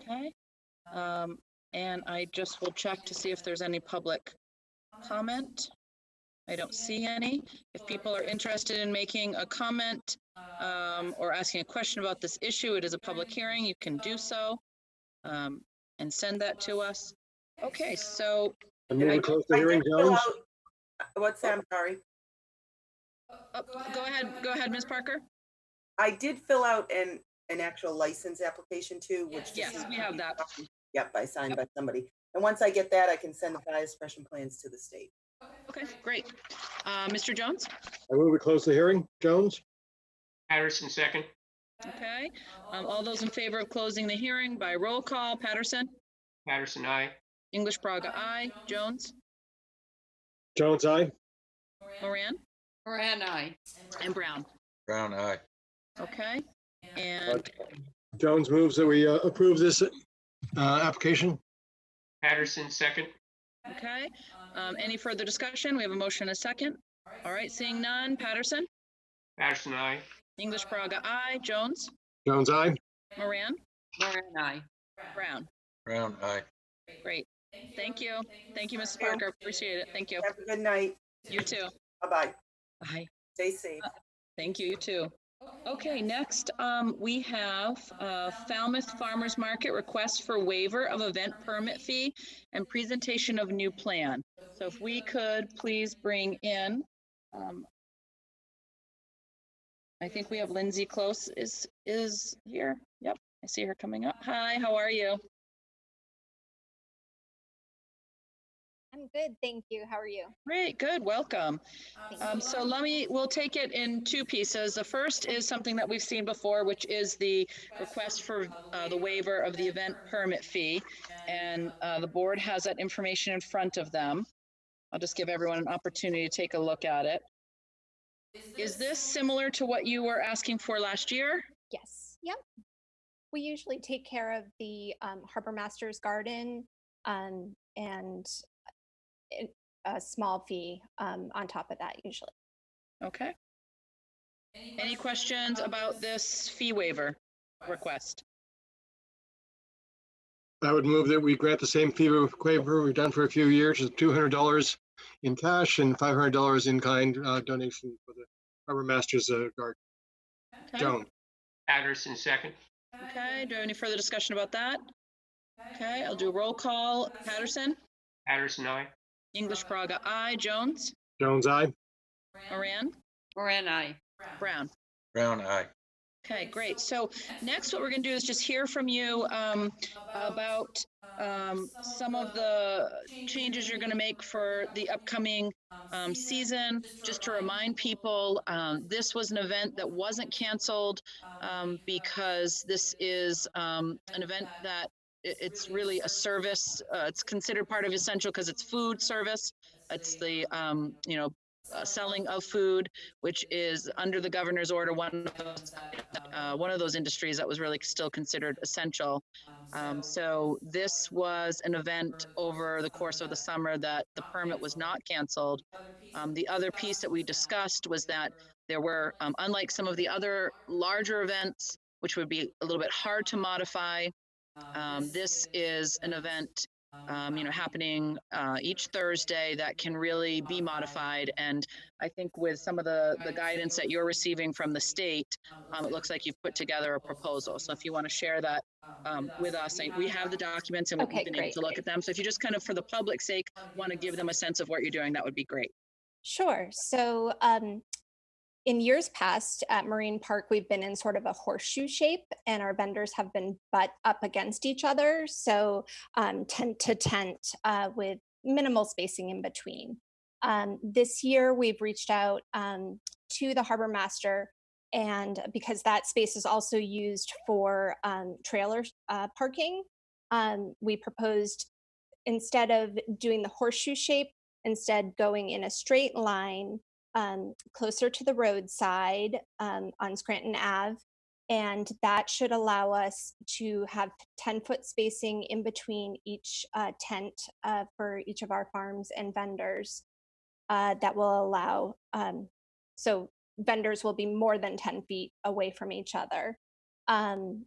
Okay. Um, and I just will check to see if there's any public comment. I don't see any. If people are interested in making a comment, um, or asking a question about this issue, it is a public hearing, you can do so. Um, and send that to us. Okay, so I move I- to close the I hearing, did fill Jones. out- uh, What's that? I'm sorry. Oh, Go ahead, go ahead, Ms. Parker. I did fill out an, an actual license application too, which. just Yes, needs we to have be that. signed. Yep, I signed by somebody. And once I get that, I can send the fire suppression plans to the state. Okay, great. Uh, Mr. Jones? I move to close the hearing, Jones. Patterson, second. Okay. Um, all those in favor of closing the hearing by roll call, Patterson, Patterson, aye. English Braga, aye. Jones, Jones, aye. Moran, Moran, I. and Brown. Brown, aye. Okay? And Jones moves that we uh, approve this uh, application. Patterson, second. Okay, um, any further discussion? We have a motion and a second. All right, seeing none, Patterson, Patterson, aye. English Braga, I, Jones, Jones, aye. Moran, Moran, I. Brown. Brown, aye. Great. Thank you. Thank you, Mrs. Parker. Appreciate it. Thank you. Have a good night. You too. Bye-bye. Bye. Stay safe. Thank you, you too. Okay, next, um, we have, uh, Falmouth Farmers Market request for waiver of event permit fee and presentation of new plan. So if we could please bring in, um, I think we have Lindsay Close is, is here. Yep, I see her coming up. Hi, how are you? I'm good, thank you. How are you? Great, good, welcome. Thank Um, so let me, we'll take it in two pieces. The first is something that we've seen before, which is the request for uh, the waiver of the event permit fee. And uh, the board has that information in front of them. I'll just give everyone an opportunity to take a look at it. Is this similar to what you were asking for last year? Yes, yep. We usually take care of the um, Harbor Masters Garden um, and it- a small fee um, on top of that usually. Okay. Any questions about this fee waiver request? I would move that we grant the same fee waiver we've done for a few years, is $200 in cash and $500 in kind uh, donation for the Harbor Masters uh, Garden. Okay. Jones, Patterson, second. Okay, do you have any further discussion about that? Okay, I'll do a roll call. Patterson, Patterson, aye. English Praga, I. Jones, Jones, aye. Moran, Moran, I. Brown. Brown, aye. Okay, great. So next, what we're going to do is just hear from you um, about um, some of the changes you're going to make for the upcoming um, season. Just to remind people, um, this was an event that wasn't canceled um, because this is um, an event that i- it's really a service. Uh, it's considered part of essential because it's food service. It's the um, you know uh, selling of food, which is under the governor's order one of those uh, one of those industries that was really still considered essential. Um, so this was an event over the course of the summer that the permit was not canceled. Um, the other piece that we discussed was that there were, um, unlike some of the other larger events, which would be a little bit hard to modify, um, this is an event. Um, you know, happening uh, each Thursday that can really be modified. And I think with some of the, the guidance that you're receiving from the state, um, it looks like you've put together a proposal. So if you want to share that, um, with us, I- we have the documents and we've Okay, been able to great. look at them. So if you just kind of, for the public's sake, want to give them a sense of what you're doing, that would be great. Sure. So um, in years past at Marine Park, we've been in sort of a horseshoe shape and our vendors have been butt up against each other. So um, tent to tent uh, with minimal spacing in between. Um, this year, we've reached out um, to the harbor master. And because that space is also used for um, trailer uh, parking, um, we proposed instead of doing the horseshoe shape, instead going in a straight line um, closer to the roadside um, on Scranton Ave. And that should allow us to have 10 foot spacing in between each uh, tent uh, for each of our farms and vendors. Uh, that will allow, um, so vendors will be more than 10 feet away from each other. Um,